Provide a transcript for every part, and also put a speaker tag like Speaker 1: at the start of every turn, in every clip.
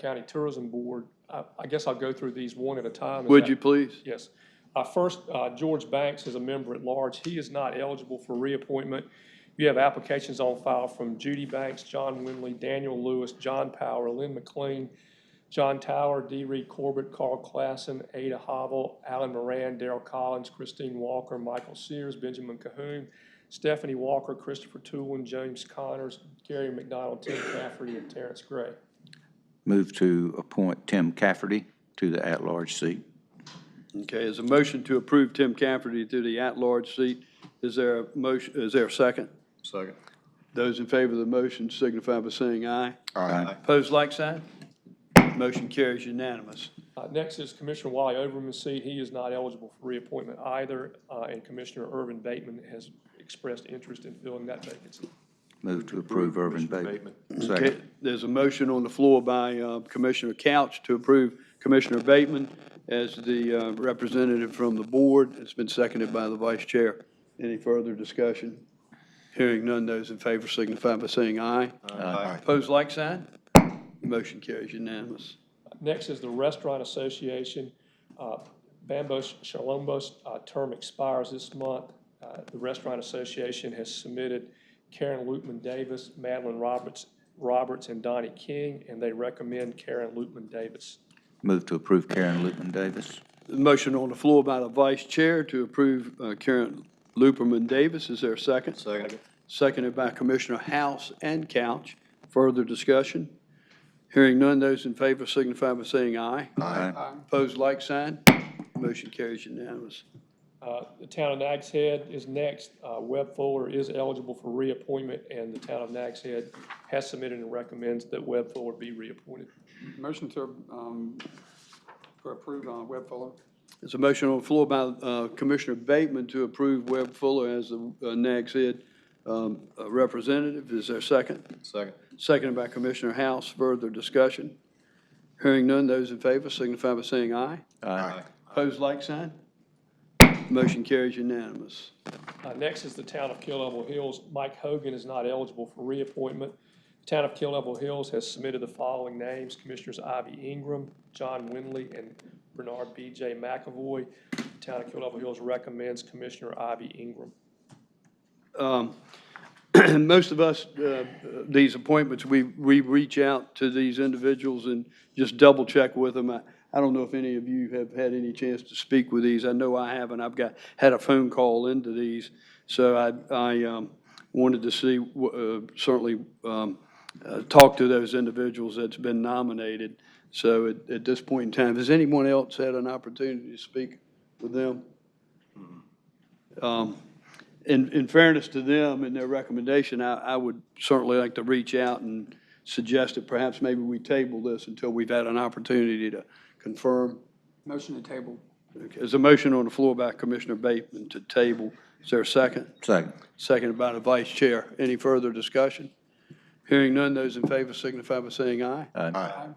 Speaker 1: County Tourism Board. I, I guess I'll go through these one at a time. Is
Speaker 2: Would
Speaker 1: that-
Speaker 2: you please?
Speaker 1: Yes. Uh, First, uh, George Banks is a member at large. He is not eligible for reappointment. You have applications on file from Judy Banks, John Winley, Daniel Lewis, John Power, Lynn McLean, John Tower, D. Reed Corbett, Carl Classen, Ada Hobble, Alan Moran, Daryl Collins, Christine Walker, Michael Sears, Benjamin Cahoon, Stephanie Walker, Christopher Toolin, James Connors, Gary McDonald, Tim Cafferty, and Terrence Gray.
Speaker 3: Move to appoint Tim Cafferty to the at-large seat.
Speaker 2: Okay, is a motion to approve Tim Cafferty to the at-large seat. Is there a motion, is there a second?
Speaker 4: Second.
Speaker 2: Those in favor of the motion signify by saying aye.
Speaker 3: Aye.
Speaker 2: Opposed, like sign? Motion carries unanimous.
Speaker 1: Uh, Next is Commissioner Wally Overman's seat. He is not eligible for reappointment either, uh, and Commissioner Irvin Bateman has expressed interest in filling that vacancy.
Speaker 3: Move to approve Irvin Bateman.
Speaker 4: Bateman.
Speaker 2: Okay,
Speaker 3: Second.
Speaker 2: there's a motion on the floor by uh, Commissioner Couch to approve Commissioner Bateman as the uh, representative from the board. It's been seconded by the vice chair. Any further discussion? Hearing none, those in favor signify by saying aye.
Speaker 4: Aye.
Speaker 2: Opposed, like sign? Motion carries unanimous.
Speaker 1: Uh, Next is the Restaurant Association. Uh, Bambo Shalombo's uh, term expires this month. Uh, The Restaurant Association has submitted Karen Lutman Davis, Madeline Roberts, Roberts, and Donnie King, and they recommend Karen Lutman Davis.
Speaker 3: Move to approve Karen Lutman Davis.
Speaker 2: Motion on the floor by the vice chair to approve uh, Karen Luperman Davis. Is there a second?
Speaker 4: Second.
Speaker 2: Seconded by Commissioner House and Couch. Further discussion? Hearing none, those in favor signify by saying aye.
Speaker 3: Aye.
Speaker 2: Opposed, like sign. Motion carries unanimous.
Speaker 1: Uh, The town of Nags Head is next. Uh, Webb Fuller is eligible for reappointment, and the town of Nags Head has submitted and recommends that Webb Fuller be reappointed.
Speaker 5: Motion to, um, to approve on Webb Fuller.
Speaker 2: There's a motion on the floor by uh, Commissioner Bateman to approve Webb Fuller as the uh, Nags Head um, uh, representative. Is there a second?
Speaker 4: Second.
Speaker 2: Seconded by Commissioner House. Further discussion? Hearing none, those in favor signify by saying aye.
Speaker 3: Aye.
Speaker 2: Opposed, like sign. Motion carries unanimous.
Speaker 1: Uh, Next is the town of Kill Level Hills. Mike Hogan is not eligible for reappointment. The town of Kill Level Hills has submitted the following names: Commissioners Ivy Ingram, John Winley, and Bernard B.J. McAvoy. The town of Kill Level Hills recommends Commissioner Ivy Ingram.
Speaker 2: Um, Most of us, uh, these appointments, we, we reach out to these individuals and just double check with them. I I don't know if any of you have had any chance to speak with these. I know I haven't. I've got, had a phone call into these. So I, I um, wanted to see, w- uh, certainly um, uh, talk to those individuals that's been nominated. So at, at this point in time, has anyone else had an opportunity to speak with them? Um, in, in fairness to them and their recommendation, I, I would certainly like to reach out and suggest that perhaps maybe we table this until we've had an opportunity to confirm.
Speaker 5: Motion to table.
Speaker 2: Okay, There's a motion on the floor by Commissioner Bateman to table. Is there a second?
Speaker 3: Second.
Speaker 2: Seconded by the vice chair. Any further discussion? Hearing none, those in favor signify by saying aye.
Speaker 4: Aye.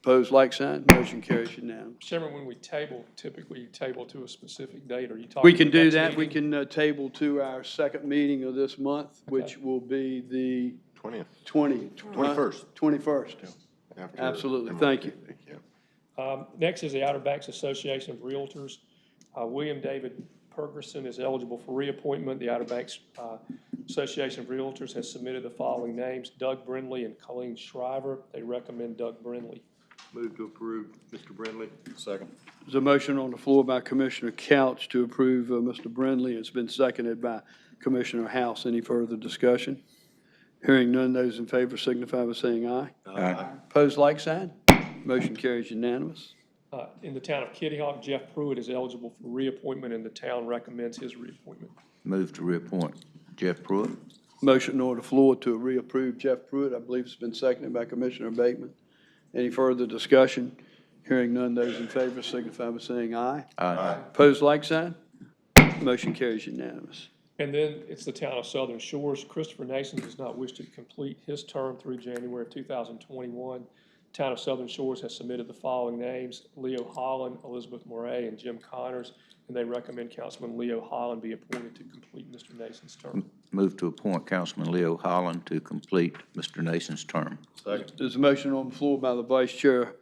Speaker 2: Opposed, like sign. Motion carries unanimous.
Speaker 1: Chairman, when we table, typically you table to a specific date, are you talking?
Speaker 2: We can do
Speaker 1: next
Speaker 2: that. We
Speaker 1: meeting?
Speaker 2: can uh, table to our second meeting of this month, which will be the
Speaker 4: Twentieth.
Speaker 2: 20.
Speaker 4: 21st.
Speaker 2: 21st. Absolutely. Thank you.
Speaker 1: Um, Next is the Outer Banks Association of Realtors. Uh, William David Pergerson is eligible for reappointment. The Outer Banks uh, Association of Realtors has submitted the following names, Doug Brindley and Colleen Shriver. They recommend Doug Brindley.
Speaker 4: Move to approve, Mr. Brindley. Second.
Speaker 2: There's a motion on the floor by Commissioner Couch to approve uh, Mr. Brindley. It's been seconded by Commissioner House. Any further discussion? Hearing none, those in favor signify by saying aye.
Speaker 3: Aye.
Speaker 2: Opposed, like sign. Motion carries unanimous.
Speaker 1: Uh, In the town of Kitty Hawk, Jeff Pruitt is eligible for reappointment, and the town recommends his reappointment.
Speaker 3: Move to reappoint Jeff Pruitt.
Speaker 2: Motion on the floor to reapprove Jeff Pruitt. I believe it's been seconded by Commissioner Bateman. Any further discussion? Hearing none, those in favor signify by saying aye.
Speaker 3: Aye.
Speaker 2: Opposed, like sign. Motion carries unanimous.
Speaker 1: And then it's the town of Southern Shores. Christopher Nason does not wish to complete his term through January of 2021. Town of Southern Shores has submitted the following names, Leo Holland, Elizabeth Moray, and Jim Connors, and they recommend Councilman Leo Holland be appointed to complete Mr. Nason's term.
Speaker 3: Move to appoint Councilman Leo Holland to complete Mr. Nason's term.
Speaker 4: Second.
Speaker 2: There's a motion on the floor by the vice chair.